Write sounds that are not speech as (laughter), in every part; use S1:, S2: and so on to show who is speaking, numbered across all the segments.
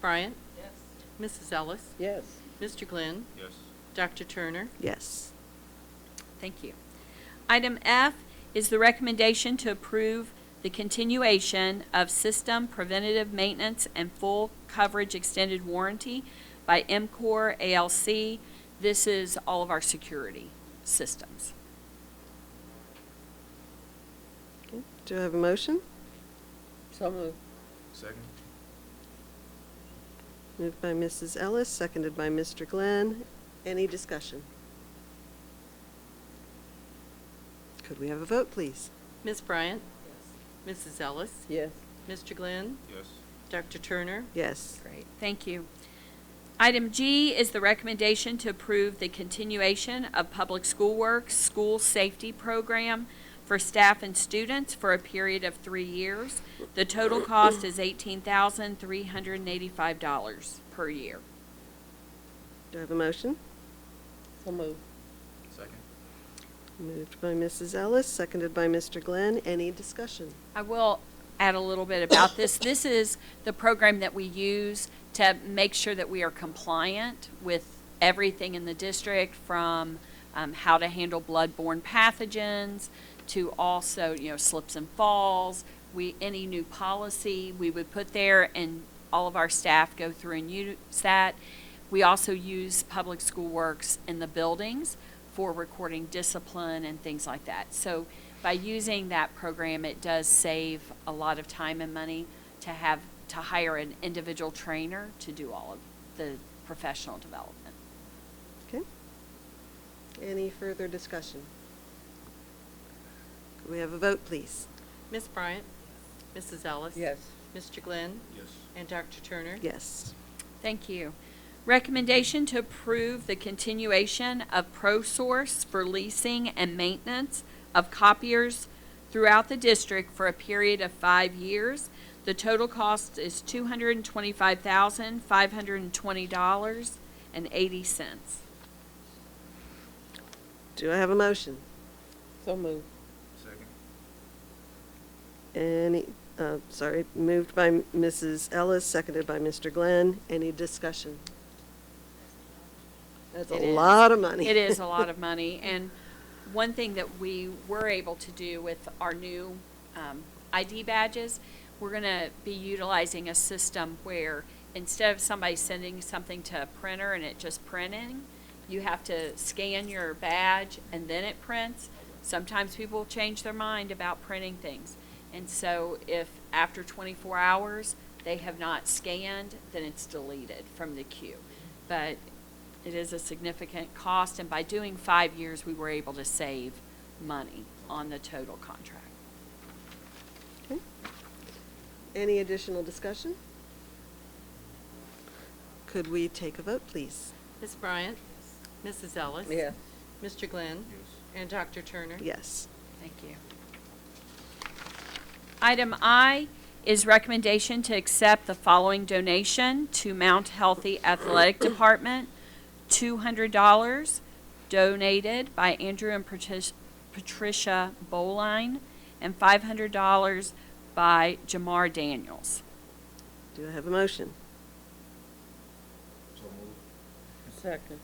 S1: Bryant?
S2: Yes.
S1: Mrs. Ellis?
S3: Yes.
S1: Mr. Glenn?
S4: Yes.
S1: Dr. Turner?
S3: Yes.
S2: Thank you. Item F is the recommendation to approve the continuation of system preventative maintenance and full coverage extended warranty by MCOR ALC. This is all of our security systems.
S5: Okay, Do I have a motion?
S3: So moved.
S4: Second?
S5: Moved by Mrs. Ellis, seconded by Mr. Glenn. Any discussion? Could we have a vote, please?
S1: Ms. Bryant? Mrs. Ellis?
S3: Yes.
S1: Mr. Glenn?
S4: Yes.
S1: Dr. Turner?
S5: Yes.
S2: Great, thank you. Item G is the recommendation to approve the continuation of Public School Works School Safety Program for staff and students for a period of three years. The total cost is eighteen thousand three hundred and eighty-five dollars per year.
S5: Do I have a motion?
S3: So moved.
S4: Second?
S5: Moved by Mrs. Ellis, seconded by Mr. Glenn. Any discussion?
S2: I will add a little bit about this. This is the program that we use to make sure that we are compliant with everything in the district, from um, how to handle bloodborne pathogens to also, you know, slips and falls. We, any new policy, we would put there, and all of our staff go through and use that. We also use Public School Works in the buildings for recording discipline and things like that. So by using that program, it does save a lot of time and money to have, to hire an individual trainer to do all of the professional development.
S5: Okay. Any further discussion? Could we have a vote, please?
S1: Ms. Bryant? Mrs. Ellis?
S3: Yes.
S1: Mr. Glenn?
S4: Yes.
S1: And Dr. Turner?
S5: Yes.
S2: Thank you. Recommendation to approve the continuation of ProSource for leasing and maintenance of copiers throughout the district for a period of five years. The total cost is two hundred and twenty-five thousand, five hundred and twenty dollars and eighty cents.
S5: Do I have a motion?
S3: So moved.
S4: Second?
S5: Any, uh, sorry, moved by Mrs. Ellis, seconded by Mr. Glenn. Any discussion? That's
S2: It
S5: a
S2: is.
S5: lot of money.
S2: It is a lot
S5: (laughs)
S2: of money, and one thing that we were able to do with our new um, ID badges, we're gonna be utilizing a system where instead of somebody sending something to a printer and it just printing, you have to scan your badge and then it prints. Sometimes people change their mind about printing things. And so if after 24 hours, they have not scanned, then it's deleted from the queue. But it is a significant cost, and by doing five years, we were able to save money on the total contract.
S5: Okay. Any additional discussion? Could we take a vote, please?
S1: Ms. Bryant? Mrs. Ellis?
S3: Yes.
S1: Mr. Glenn?
S4: Yes.
S1: And Dr. Turner?
S5: Yes.
S2: Thank you. Item I is recommendation to accept the following donation to Mount Healthy Athletic Department. $200 donated by Andrew and Patric- Patricia Boline, and $500 by Jamar Daniels.
S5: Do I have a motion?
S4: So moved.
S3: Second.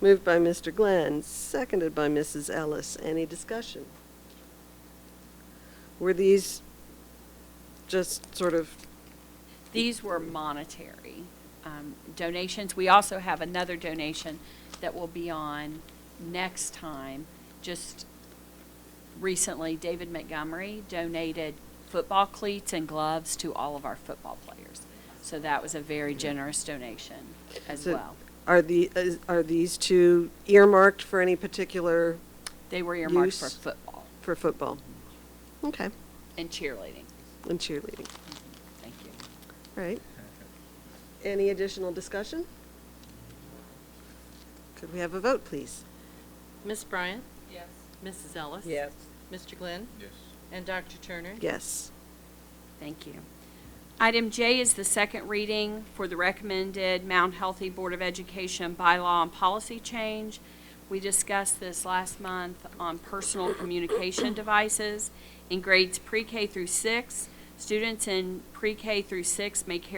S5: Moved by Mr. Glenn, seconded by Mrs. Ellis. Any discussion? Were these just sort of,
S2: These were monetary um, donations. We also have another donation that will be on next time. Just recently, David Montgomery donated football cleats and gloves to all of our football players. So that was a very generous donation as
S5: So-
S2: well.
S5: are the, is- are these two earmarked for any particular,
S2: They were earmarked for
S5: Use-
S2: football
S5: for football? Okay,
S2: and cheerleading.
S5: and cheerleading.
S2: Thank you.
S5: All right. Any additional discussion? Could we have a vote, please?
S1: Ms. Bryant?
S2: Yes.
S1: Mrs. Ellis?
S3: Yes.
S1: Mr. Glenn?
S4: (laughs) Yes.
S1: And Dr. Turner?
S5: Yes.
S2: Thank you. Item J is the second reading for the recommended Mount Healthy Board of Education bylaw and policy change. We discussed this last month on personal communication devices. In grades pre-K through six, students in pre-K through six may carry